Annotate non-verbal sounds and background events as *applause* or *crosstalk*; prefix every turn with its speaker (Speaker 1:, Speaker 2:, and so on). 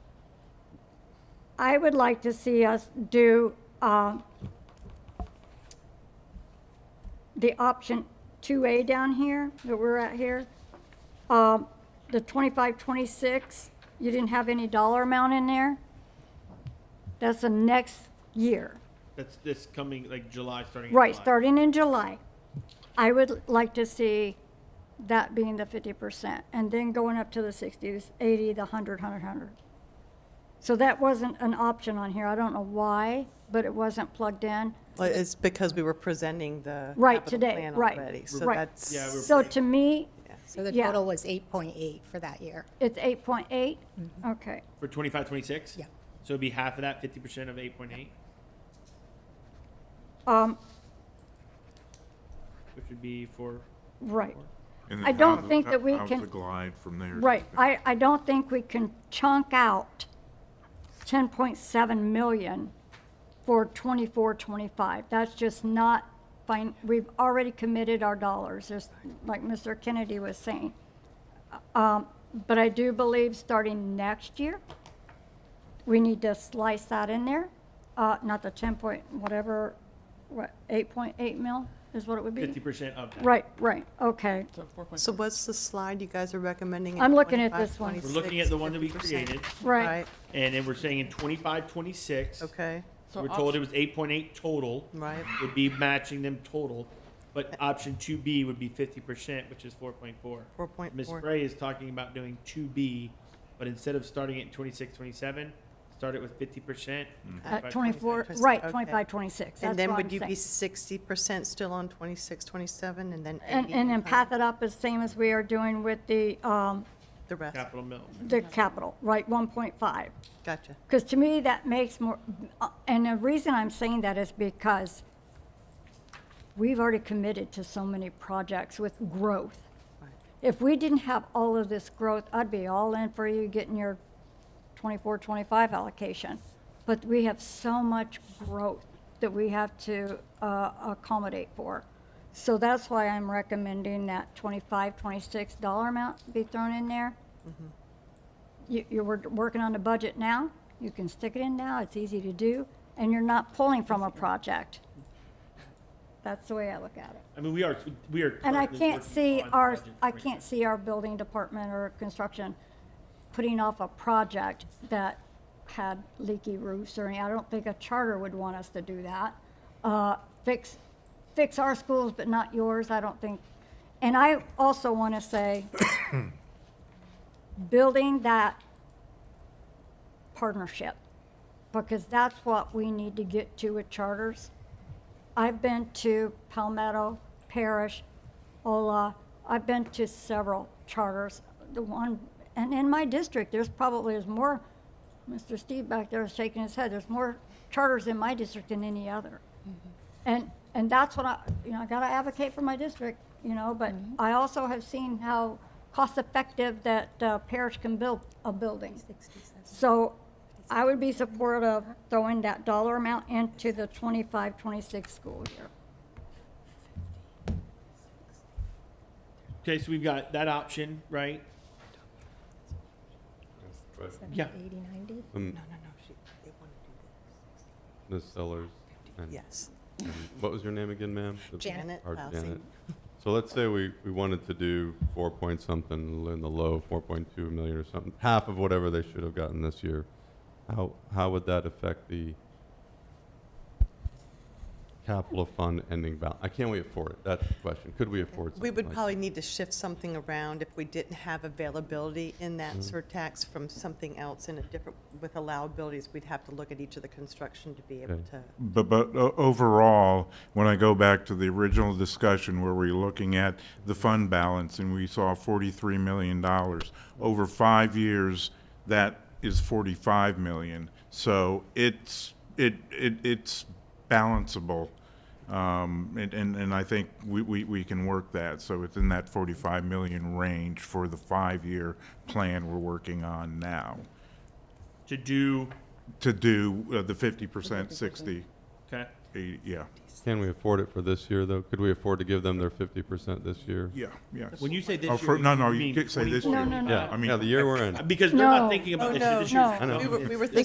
Speaker 1: I would like to see us do uh, the option 2A down here, that we're at here. Um, The 25, 26, you didn't have any dollar amount in there. That's the next year.
Speaker 2: That's this coming, like July, starting. in
Speaker 1: Right,
Speaker 2: July.
Speaker 1: starting in July. I would like to see that being the fifty percent, and then going up to the sixties, eighty, the hundred, hundred, hundred. So that wasn't an option on here, I don't know why, but it wasn't plugged in.
Speaker 3: Well, it's because we were presenting the
Speaker 1: Right,
Speaker 3: capital
Speaker 1: today,
Speaker 3: plan
Speaker 1: right,
Speaker 3: already, so
Speaker 1: right.
Speaker 3: that's.
Speaker 2: Yeah, we're-
Speaker 1: So to me,
Speaker 4: So the
Speaker 1: Yeah.
Speaker 4: total was 8.8 for that year.
Speaker 1: it's eight point eight,
Speaker 3: Mm-hmm.
Speaker 1: okay,
Speaker 2: For 25, 26?
Speaker 4: Yeah.
Speaker 2: So it'd be half of that, 50% of 8.8,
Speaker 1: um,
Speaker 2: which would be for,
Speaker 1: right.
Speaker 5: And then
Speaker 1: I
Speaker 5: how
Speaker 1: don't
Speaker 5: the-
Speaker 1: think
Speaker 5: how-
Speaker 1: that we
Speaker 5: how's
Speaker 1: can-
Speaker 5: the glide from there?
Speaker 1: Right, I, I don't think we can chunk out ten point seven million for 24-25. That's just not fine, we've already committed our dollars, just like Mr. Kennedy was saying. Um, but I do believe starting next year, we need to slice that in there, uh, not the ten point, whatever, what, eight point eight mil is what it would be?
Speaker 2: 50% of that.
Speaker 1: Right, right, okay,
Speaker 3: So what's the slide you guys are recommending? in
Speaker 1: I'm looking at
Speaker 3: 25,
Speaker 1: this one.
Speaker 2: We're looking at the one that we
Speaker 3: 26,
Speaker 2: created,
Speaker 1: right,
Speaker 3: Right,
Speaker 2: and then we're saying in 25, 26,
Speaker 3: okay,
Speaker 2: we're told it was 8.8 total,
Speaker 3: right.
Speaker 2: would be matching them total, but option 2B would be 50%, which is 4.4. Ms.
Speaker 3: 4.4.
Speaker 2: Frey is talking about doing 2B, but instead of starting at 26, 27, start it with 50%.
Speaker 1: at Uh,
Speaker 2: 25,
Speaker 1: twenty-four,
Speaker 3: 26,
Speaker 1: right,
Speaker 3: okay.
Speaker 1: twenty-five, twenty-six,
Speaker 3: And
Speaker 1: that's
Speaker 3: then
Speaker 1: what
Speaker 3: would
Speaker 1: I'm
Speaker 3: you be
Speaker 1: saying.
Speaker 3: 60% still on 26, 27, and then 80?
Speaker 1: And, and then path it up as same as we are doing with the, um,
Speaker 3: The rest,
Speaker 2: Capital mill.
Speaker 1: the capital, right, one point five.
Speaker 3: gotcha.
Speaker 1: Because to me, that makes more, uh, and the reason I'm saying that is because we've already committed to so many projects with growth. If we didn't have all of this growth, I'd be all in for you getting your 24, 25 allocation. But we have so much growth that we have to uh, accommodate for. So that's why I'm recommending that 25, 26 dollar amount be thrown in there you, you're wor- working on the budget now, you can stick it in now, it's easy to do, and you're not pulling from a project. That's the way I look at it.
Speaker 2: I mean, we are, we are.
Speaker 1: And I
Speaker 2: currently
Speaker 1: can't
Speaker 2: working
Speaker 1: see
Speaker 2: on the
Speaker 1: our,
Speaker 2: budget
Speaker 1: I
Speaker 2: right
Speaker 1: can't see our building department or construction putting off a project that had leaky roofs or any, I don't think a charter would want us to do that. Uh, fix, fix our schools, but not yours, I don't think. And I also want to say, *coughs* building that partnership, because that's what we need to get to with charters. I've been to Palmetto, Parish, Ola, I've been to several charters. The one, and in my district, there's probably, there's more, Mr. Steve back there is shaking his head, there's more charters in my district than any other. And, and that's what I, you know, I gotta advocate for my district, you know, but I also have seen how cost-effective that uh, parish can build a building. So I would be supportive of throwing that dollar amount into the 25-26 school year.
Speaker 2: Okay, so we've got that option, right? Yeah.
Speaker 4: 80, 90?
Speaker 6: Um,
Speaker 3: No, no, no, she, they want to
Speaker 6: Ms. Sellers. and-
Speaker 3: do this. Yes,
Speaker 6: and What was your name again, ma'am? The-
Speaker 3: Janet
Speaker 6: or
Speaker 3: Lousy.
Speaker 6: Janet. So let's say we, we wanted to do four point something in the low, four point two million or something, half of whatever they should have gotten this year. How, how would that affect the capital fund ending balance? I can't we afford it? That's the question. Could we afford something
Speaker 3: We would
Speaker 6: like
Speaker 3: probably need to shift something around if we didn't have availability in that
Speaker 6: Mm-hmm.
Speaker 3: surtax from something else in a different, with allowabilities, we'd have to look at each of the construction to be able
Speaker 6: Okay.
Speaker 3: to.
Speaker 5: But, but o- overall, when I go back to the original discussion where we're looking at the fund balance and we saw forty-three million dollars, over five years, that is forty-five million. So it's, it, it, it's balanceable. Um, and, and, and I think we, we, we can work that. So it's in that forty-five million range for the five-year plan we're working on now
Speaker 2: To do,
Speaker 5: to do uh, the fifty percent, sixty,
Speaker 2: okay.
Speaker 5: eighty, yeah.
Speaker 6: Can we afford it for this year, though? Could we afford to give them their fifty percent this year?
Speaker 5: Yeah, yeah.
Speaker 2: When you say this
Speaker 5: Oh,
Speaker 2: year,
Speaker 5: for- no, no, you
Speaker 2: mean
Speaker 5: can't say this
Speaker 2: 24.
Speaker 5: year.
Speaker 1: No, no, no.
Speaker 6: Yeah,
Speaker 5: I mean-
Speaker 6: yeah, the year we're in.
Speaker 2: Because they're not
Speaker 1: No.
Speaker 2: thinking about
Speaker 3: Oh,
Speaker 2: this
Speaker 3: no,
Speaker 2: year. This year's
Speaker 1: no.
Speaker 6: I know.
Speaker 3: We
Speaker 2: done.
Speaker 3: were, we were
Speaker 2: It's-